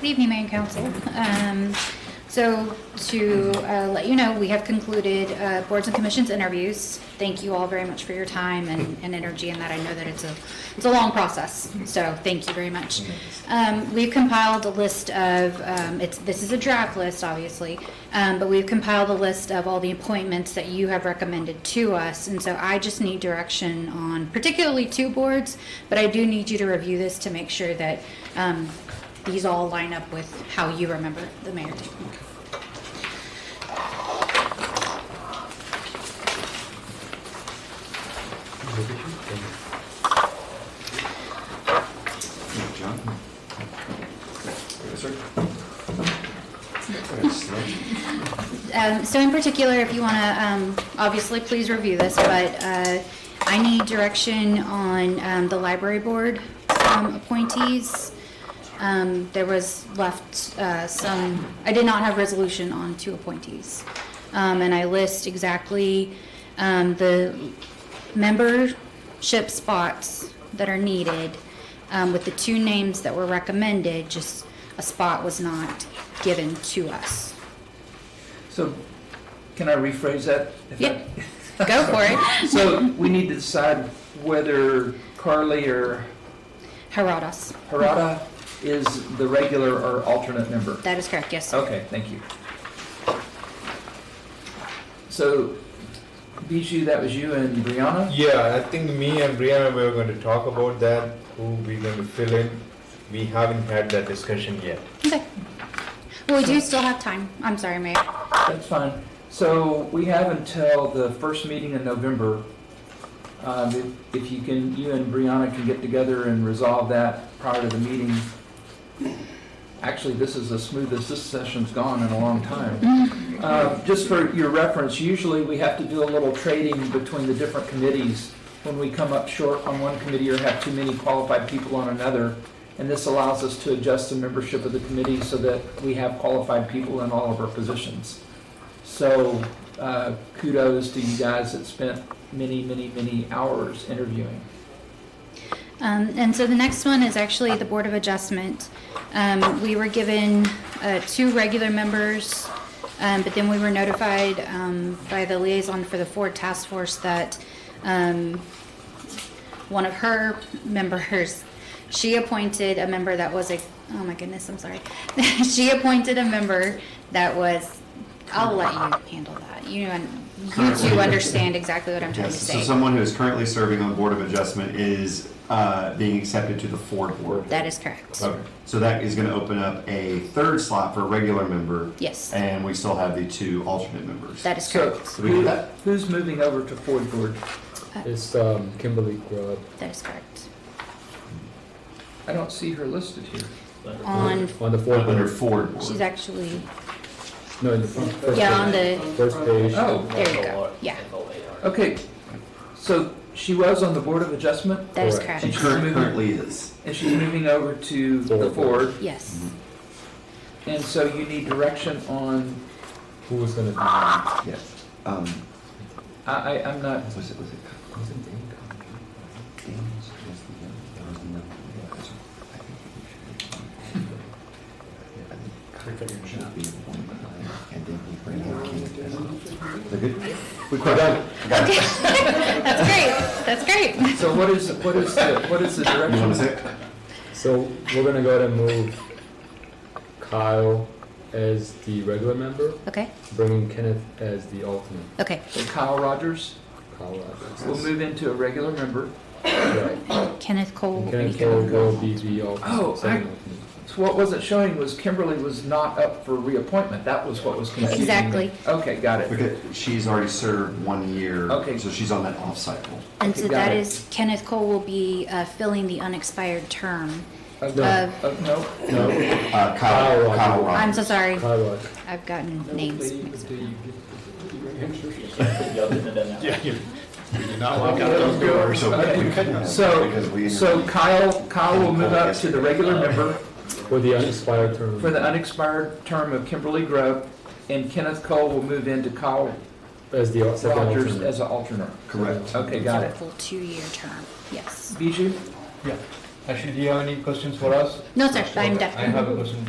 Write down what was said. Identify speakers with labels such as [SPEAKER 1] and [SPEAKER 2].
[SPEAKER 1] Good evening, Mayor and Council. Um, So to uh, let you know, we have concluded uh, boards and commissions interviews. Thank you all very much for your time and and energy in that. I know that it's a, it's a long process, so thank you very much. Um, We've compiled a list of, um, it's, this is a draft list, obviously, um, but we've compiled a list of all the appointments that you have recommended to us. And so I just need direction on particularly two boards, but I do need you to review this to make sure that um, these all line up with how you remember the mayor table.
[SPEAKER 2] John? Yes, sir.
[SPEAKER 1] Um, So in particular, if you want to, obviously, please review this, but uh, I need direction on um, the library board um, appointees. Um, There was left uh, some, I did not have resolution on two appointees. Um, And I list exactly um, the membership spots that are needed um, with the two names that were recommended, just a spot was not given to us.
[SPEAKER 3] So, can I rephrase that? if I-
[SPEAKER 1] Yep. Go for it.
[SPEAKER 3] So, we need to decide whether Carly or
[SPEAKER 1] Herodos.
[SPEAKER 3] Harada is the regular or alternate member?
[SPEAKER 1] That is correct, yes.
[SPEAKER 3] Okay, thank you. So, Bijou, that was you and Brianna?
[SPEAKER 2] Yeah, I think me and Brianna we were going to talk about that, who we're going to fill in. We haven't had that discussion yet.
[SPEAKER 1] Okay. Well, we do still have time. I'm sorry, Mayor.
[SPEAKER 3] That's fine. So we have until the first meeting in November. Um, if- If you can, you and Brianna can get together and resolve that prior to the meeting. Actually, this is the smoothest this session's gone in a long time. Uh, Just for your reference, usually we have to do a little trading between the different committees when we come up short on one committee or have too many qualified people on another. And this allows us to adjust the membership of the committee so that we have qualified people in all of our positions. So uh, kudos to you guys that spent many, many, many hours interviewing.
[SPEAKER 1] Um, and so the next one is actually the Board of Adjustment. Um, we were given uh, two regular members, um, but then we were notified um, by the liaison for the Ford Task Force that um, one of her members, she appointed a member that was a, oh my goodness, I'm sorry. she appointed a member that was, I'll let you handle that. You, you two understand exactly what I'm trying to
[SPEAKER 4] Yes, so
[SPEAKER 1] say.
[SPEAKER 4] someone who is currently serving on the Board of Adjustment is uh, being accepted to the Ford Board.
[SPEAKER 1] That is correct.
[SPEAKER 4] Okay, so that is going to open up a third slot for a regular member,
[SPEAKER 1] Yes,
[SPEAKER 4] and we still have the two alternate members.
[SPEAKER 1] that is
[SPEAKER 3] So
[SPEAKER 1] correct.
[SPEAKER 4] We do
[SPEAKER 3] who- uh,
[SPEAKER 4] that.
[SPEAKER 3] who's moving over to Ford Board?
[SPEAKER 5] It's um, Kimberly Grubb.
[SPEAKER 1] That is correct.
[SPEAKER 3] I don't see her listed here.
[SPEAKER 1] On,
[SPEAKER 5] On the fourth,
[SPEAKER 4] Under Ford Board.
[SPEAKER 1] she's actually,
[SPEAKER 5] no, in the first
[SPEAKER 1] yeah, on
[SPEAKER 5] page.
[SPEAKER 1] the,
[SPEAKER 5] First page.
[SPEAKER 3] Oh,
[SPEAKER 1] there you go, yeah,
[SPEAKER 3] okay. So she was on the Board of Adjustment
[SPEAKER 1] that is
[SPEAKER 4] She
[SPEAKER 1] correct,
[SPEAKER 4] curr- currently is.
[SPEAKER 3] and she's moving over to the
[SPEAKER 5] Ford.
[SPEAKER 3] Ford.
[SPEAKER 1] yes.
[SPEAKER 3] And so you need direction on,
[SPEAKER 5] Who was gonna be?
[SPEAKER 4] Yeah. Um,
[SPEAKER 3] I, I, I'm not,
[SPEAKER 4] was it, was it? was it Dan Conley? Dan was- was the young- there was another- yeah, that's right. I think it was- yeah, I think Conley should be one behind, and then we bring in Kenneth as a- They're good? We got it.
[SPEAKER 1] That's great, that's great.
[SPEAKER 3] so what is, what is the, what is the
[SPEAKER 4] You want to
[SPEAKER 3] direction?
[SPEAKER 4] say? it?
[SPEAKER 5] So we're gonna go ahead and move Kyle as the regular member,
[SPEAKER 1] Okay,
[SPEAKER 5] bringing Kenneth as the alternate.
[SPEAKER 1] okay,
[SPEAKER 3] So Kyle Rogers
[SPEAKER 5] Kyle
[SPEAKER 3] will move into a regular member.
[SPEAKER 5] Right.
[SPEAKER 1] Kenneth Cole.
[SPEAKER 5] And
[SPEAKER 1] will be
[SPEAKER 5] Kenneth Cole
[SPEAKER 1] going.
[SPEAKER 5] will be the
[SPEAKER 3] Oh,
[SPEAKER 5] alternate,
[SPEAKER 3] I-
[SPEAKER 5] second alternate.
[SPEAKER 3] So what wasn't showing was Kimberly was not up for reappointment. That was what was confusing. me.
[SPEAKER 1] Exactly.
[SPEAKER 3] Okay, got it.
[SPEAKER 4] Okay, she's already served one year,
[SPEAKER 3] Okay.
[SPEAKER 4] so she's on that off cycle.
[SPEAKER 1] And so
[SPEAKER 3] Okay, got
[SPEAKER 1] that
[SPEAKER 3] it.
[SPEAKER 1] is, Kenneth Cole will be uh, filling the unexpired term
[SPEAKER 3] Okay.
[SPEAKER 1] of,
[SPEAKER 3] Oh, no.
[SPEAKER 4] No, uh, Kyle,
[SPEAKER 5] Kyle
[SPEAKER 4] Kyle
[SPEAKER 5] Rogers.
[SPEAKER 1] I'm
[SPEAKER 4] Rogers.
[SPEAKER 1] so sorry,
[SPEAKER 5] Kyle Rogers.
[SPEAKER 1] I've gotten names.
[SPEAKER 3] So, so Kyle, Kyle will move up to the regular member
[SPEAKER 5] for the unexpired term.
[SPEAKER 3] for the unexpired term of Kimberly Grove, and Kenneth Cole will move into Kyle
[SPEAKER 5] As the al- second
[SPEAKER 3] Rogers
[SPEAKER 5] alternate.
[SPEAKER 3] as an alternate.
[SPEAKER 4] Correct.
[SPEAKER 3] Okay, got it.
[SPEAKER 1] Full two-year term, yes.
[SPEAKER 3] Bijou?
[SPEAKER 6] Actually, do you have any questions for us?
[SPEAKER 1] No, sir, I'm
[SPEAKER 6] I
[SPEAKER 1] definitely.
[SPEAKER 6] have a question